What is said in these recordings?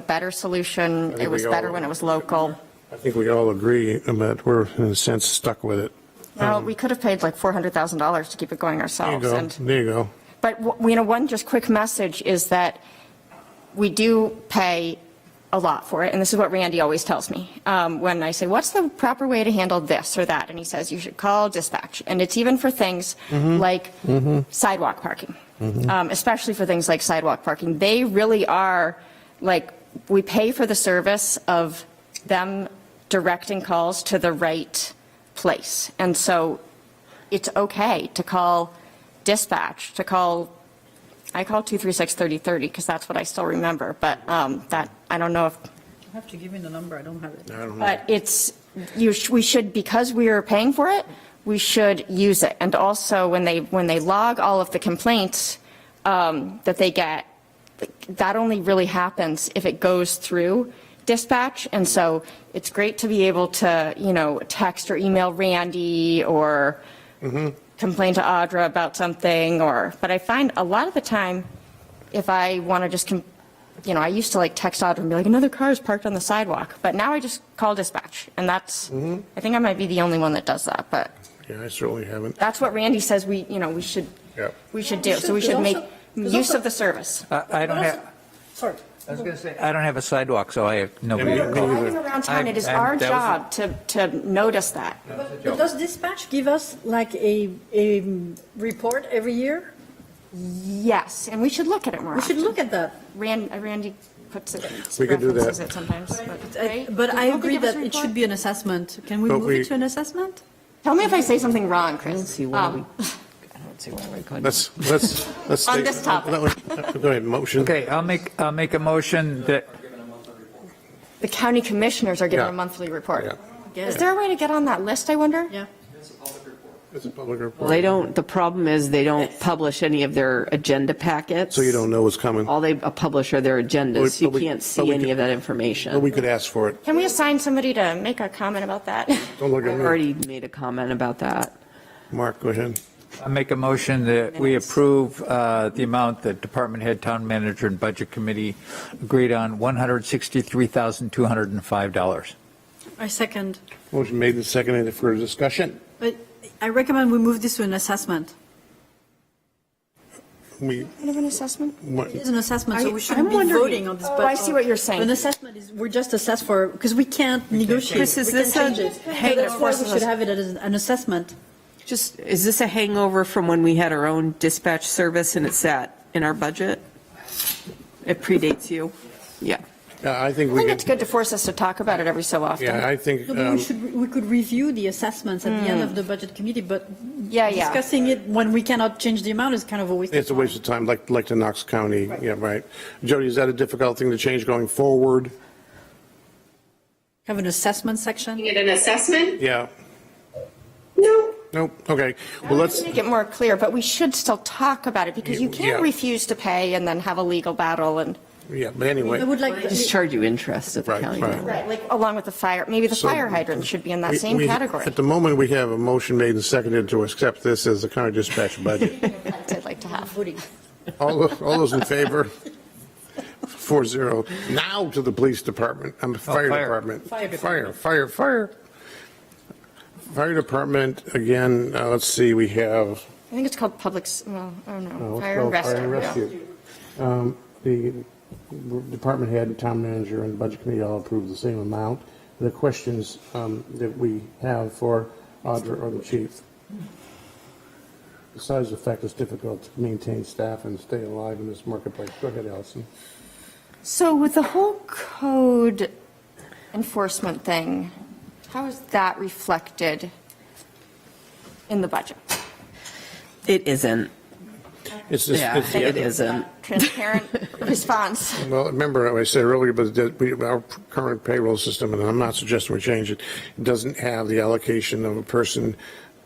better solution. think It was we all- better when it was local. I think we all agree that we're, in a sense, stuck with it. Well, we could have paid like $400,000 to keep it going There you ourselves. go, and- there you go. But, w- you know, one just quick message is that we do pay a lot for it, and this is what Randy always tells me. um, When I say, what's the proper way to handle this or that? And he says, you should call dispatch. And it's even for things like sidewalk parking, um, especially for things like sidewalk parking. They really are, like, we pay for the service of them directing calls to the right place. And so it's okay to call dispatch, to call, I call 236-3030 because that's what I still remember, but um, that, I don't know if, I have to give you the number, I don't have it. but it's, you, sh- we should, because we are paying for it, we should use it. And also, when they, when they log all of the complaints um, that they get, that only really happens if it goes through dispatch. And so it's great to be able to, you know, text or email Randy or complain to Audra about something or, but I find a lot of the time, if I want to just, com- you know, I used to like text Audra and be like, another car is parked on the sidewalk. But now I just call dispatch and that's, Mm-hmm. I think I might be the only one that does that. But Yeah, I certainly haven't. that's what Randy says we, you know, we should, Yep. we should do. So we should make use of the service. I I don't have, Sorry. I was going to say, I don't have a sidewalk, so I have nobody to call. Driving around town, it is I'm- I'm- our that was a- job to, to notice that. But but does dispatch give us like a, a um, report every year? Yes, and we should look at it more We should often. look at that. Ran- uh, Randy puts it, We could do that. references it sometimes. I- right? But I People could agree give us a that it report. should be an assessment. Can we But move we- it to an assessment? Tell me if I say something wrong, Chris. don't see why Um, we, I don't see why we couldn't. Let's, let's, let's. On take- this topic. that one- Go ahead, motion. Okay, I'll make, I'll make a motion that, The county commissioners are given a Yeah. monthly Yeah. report. Is Yes. there a way to get on that list, I wonder? Yeah. It's a public Well, They report, don't, the problem is they don't publish any of their agenda packets. so you don't know what's coming. All they publish are their But agendas. we- You but we- can't but see we any could- of that information. But we could ask for it. Can we assign somebody to make a comment about that? Don't look I've at me. already made a comment about that. Mark, go ahead. I'll make a motion that we approve uh, the amount that Department Head, Town Manager, and Budget Committee agreed on, $163,205. I second. Motion made and seconded Any further discussion. But I recommend we move this to an assessment. We, Kind of an assessment? what- It is an assessment, so I- we shouldn't I'm be wondering- voting on this. Oh, but- I see what you're saying. An assessment is, we're just assessed for, because we can't negotiate. Chris, is We this can't a change it. So hangover? That's why we should have it as an an assessment. Just, is this a hangover from when we had our own dispatch service and it sat in our budget? It predates you? Yeah. yeah, I think I we think it's could, good to force us to talk about it every so yeah, often. I think, No, but um, Hmm. we should, we could review the assessments at the end of the budget committee, but Yeah, yeah. discussing it when we cannot change the amount is kind of a waste of time. it's a waste of time, like, like to Knox County, yeah, right. Jody, is that a difficult thing to change going forward? Have an assessment section? Get an assessment? Yeah, No. nope, okay, well, let's, Make it more clear, but we should still talk about it because you can't Yeah. refuse to pay and then have a legal battle and, yeah, but I anyway. would like, They just charge you interest at the Right, county right. level. like, along with the fire, maybe the So- fire hydrant should be in that we- same we- category. At the moment, we have a motion made and seconded to accept this as the county dispatch budget. I'd like to have. All, tho- all those in favor? Four zero. Now to the police department, I'm fire Oh, fire. department. Fire, fire, fire. Fire department, again, uh, let's see, we have I think it's called public, s- well, I don't know, Well, fire and let's go rescue. yeah. Um, The department head, town manager, and budget committee all approved the same amount. The questions um, that we have for Audra or the chief. Besides the fact it's difficult to maintain staff and stay alive in this marketplace. Go ahead, Allison. So with the whole code enforcement thing, how is that reflected in the budget? It isn't. It's just, Yeah, it's- it yeah. isn't. Transparent response. well, remember what I said earlier, but that we- our current payroll system, and I'm not suggesting we change it, doesn't have the allocation of a person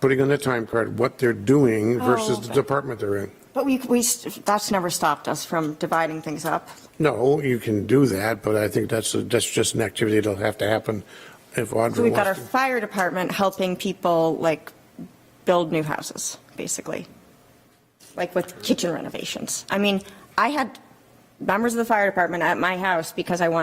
putting on their time card what they're doing Oh, versus the department they're in. But we, we, that's never stopped us from dividing things up. No, you can do that, but I think that's, a- that's just an activity that'll have to happen if So Audra we've got our wants to. fire department helping people like build new houses, basically. Like with kitchen renovations. I mean, I had members of the fire department at my house because I wanted